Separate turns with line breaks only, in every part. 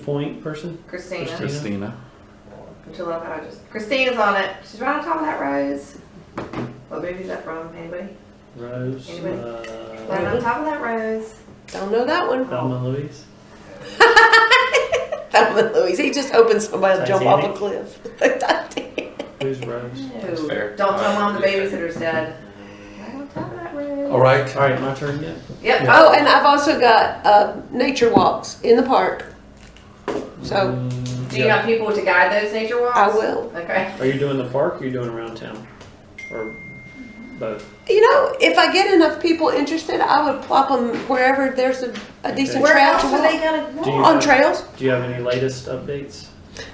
point person?
Christina.
Christina.
Don't you love how I just Christina's on it. She's right on top of that rose. What movie's that from? Anybody?
Rose,
Anybody? Right
uh,
on top of that rose.
Don't know that one.
Thelma and Louise?
That one, Louise. He just opened somebody to jump off a
Titanic.
cliff.
Who's Rose?
That's
Who-
fair. Uh,
Don't tell
Alright.
mom the babysitter's dead. Right on top of that rose.
All right.
All right, my turn again.
Yep.
oh, and I've also got uh, nature walks in the park. So
Mm,
Do you
yeah.
have people to guide those nature walks?
I will.
Okay.
Are you doing the park or are you doing around town? Or both?
You know, if I get enough people interested, I would plop them wherever there's a, a decent
Where
trail
else
to
are they
walk.
gonna
Do you-
walk?
On trails?
Do you have any latest updates?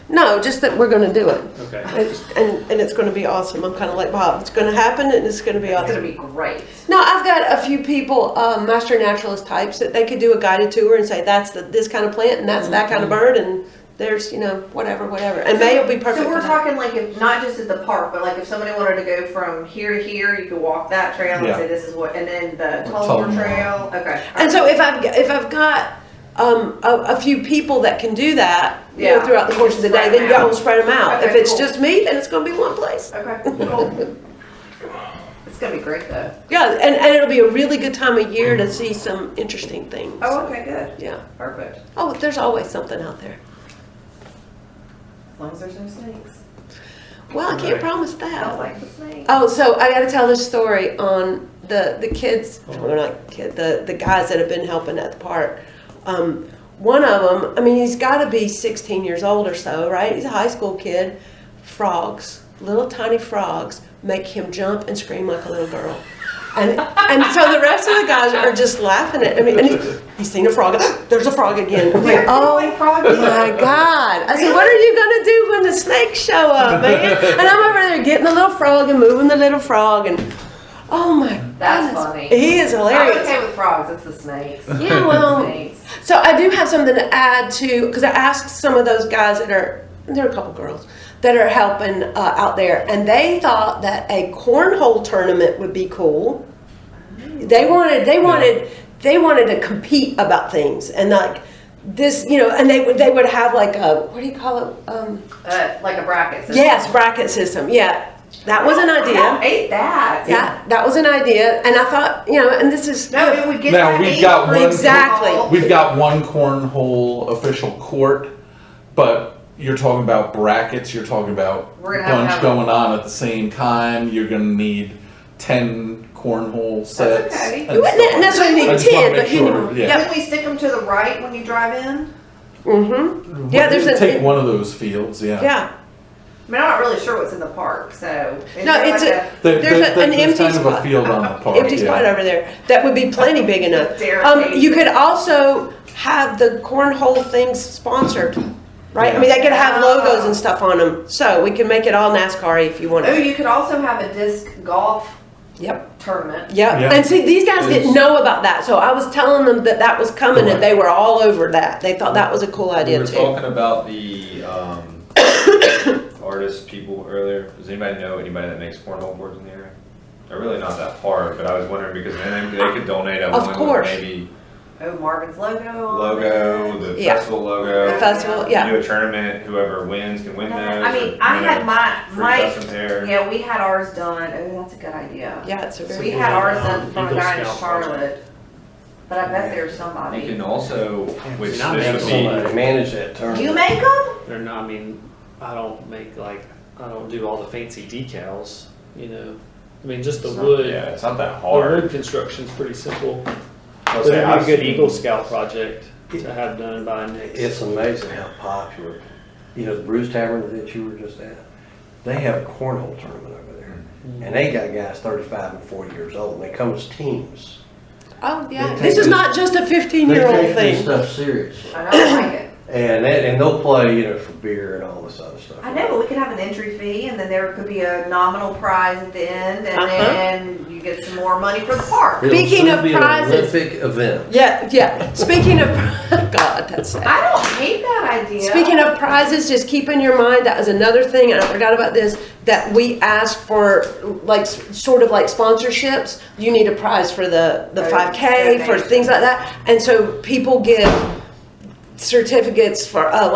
No, just that we're going to do it.
Okay.
It's- and, and it's going to be awesome. I'm kind of like Bob. It's going to happen, and it's going to be
It's gonna
awesome.
be great.
No, I've got a few people, um, master naturalist types, that they could do a guided tour and say that's the, this kind of plant and that's that kind of bird and there's you know whatever whatever and May will be perfect.
Mm-hmm. So we're
for that.
talking like if not just at the park, but like if somebody wanted to go from here to here, you could walk that trail and
Yeah.
say this is what, and then the
Tullamore.
Tullamore Trail. Okay.
And so if I've if I've got um, a, a few people that can do that you know,
Yeah.
throughout the course of the day,
Spread
then
'em
y'all
out.
will spread them out. if
Okay,
it's
cool.
just me, then it's going to be one place.
Okay. Cool. it's gonna be great though.
Yeah, and, and it'll be a really good time of year to see some interesting things.
Oh, okay, good.
Yeah.
Perfect.
Oh, there's always something out there.
As long as there's no snakes.
Well, I can't
Right.
promise that.
I don't like the snakes.
Oh, so I got to tell this story on the the kids. Well, not kid. The the guys that have been helping at the park. Um, one of them. I mean, he's got to be 16 years old or so, right? He's a high school kid. Frogs, little tiny frogs, make him jump and scream like a little girl. And, and so the rest of the guys are just laughing at. I mean, and he, he's seen a frog. "Ah, There's a frog again. I'm like, oh
Like froggy.
my God. I said, what are you going to do when the snakes show up, man? And I'm over there getting the little frog and moving the little frog and, oh my God.
That's funny.
He is
I'm
hilarious.
okay with frogs. It's the snakes.
Yeah, well,
Snakes.
so I do have something to add to, because I asked some of those guys that are, there are a couple girls that are helping uh, out there, and they thought that a cornhole tournament would be cool. They wanted, they wanted, they wanted to compete about things and like this, you know, and they would, they would have like a, what do you call it? Um,
Uh, like a bracket. system.
yes, bracket system. Yeah, that was an
I
idea.
ate that.
That that was an idea, and I thought, you know, and this is
No, it would get
Now,
that
we've
eight
got
over
one-
Exactly.
ball.
We've got one cornhole official court, but you're talking about brackets. You're talking about
We're gonna have to
bunch
have-
going on at the same time. You're gonna need ten cornhole sets.
okay.
and
you wouldn't
stuff like
necessarily
I
need
just wanna
ten,
make
but you
sure,
know,
yeah.
yeah,
Can we stick them to the right when you drive in?
mm-hmm,
that.
Yeah, there's a-
take one of those fields. Yeah.
yeah.
I mean, I'm not really sure what's in the park, so. is
No,
there
it's
like
a-
There-
There's
there-
a-
there-
an
there's
empty
kind of
spot.
a field on the park.
Empty
yeah.
spot over there that would be plenty big enough.
Dare
Um,
me.
you could also have the cornhole things sponsored, right? I mean, they could have logos and stuff on them, so we can make it all NASCAR if you want
Oh,
to.
you could also have a disc golf
Yep.
tournament.
Yep.
Yeah.
And see, these guys didn't
It's-
know about that, so I was telling them that that was coming, and
Right.
they were all over that. They thought that was a cool
We
idea
were
too.
talking about the um, artist people earlier. Does anybody know anybody that makes cornhole boards in the area? They're really not that hard, but I was wondering because then they could donate a
Of
one with
course.
maybe
Oh, Marvin's logo. on
logo,
it.
the
Yeah.
festival logo.
The festival, yeah.
Do a tournament. Whoever wins can win those.
Uh, I mean,
or,
I
you
had
know,
my,
free
my,
custom pair.
yeah, we had ours done. Oh, that's a good idea.
Yeah, it's a very
We had ours done from a
Eagle
guy in
Scout
Charlotte, but I bet there's somebody.
You can also, which
Not
this would
make
be,
a whole lot.
manage that term.
You make them?
They're not, I mean, I don't make like, I don't do all the fancy decals, you know? I mean, just the
it's not- yeah,
wood,
it's not that
the
hard.
wood construction's pretty simple.
I'll
But
say
it'd
I've
be a good
seen-
Eagle Scout project to have done by next.
It's amazing how popular, you know, the Brews Tavern that you were just at, they have a cornhole tournament over there. And they got guys thirty-five and forty years old, and they come as teams.
Oh yeah,
They
this
take
is
the-
not just a
They
fifteen-year-old
take this
thing.
stuff seriously.
I don't like it.
And they, and they'll play, you know, for beer and all this other stuff.
I know, but we could have an entry fee and then there could be a nominal prize at the end and
Uh-huh.
then you get some more money for the park.
It'll
Speaking
soon
of
be an
prizes-
Olympic event.
Yeah, yeah. Speaking of, God, that's sad.
I don't hate that idea.
Speaking of prizes, just keep in your mind that is another thing, and I forgot about this, that we ask for like s- sort of like sponsorships. You need a prize for the the
Right.
five K, for
Donation.
things like that. And so people give certificates for, oh,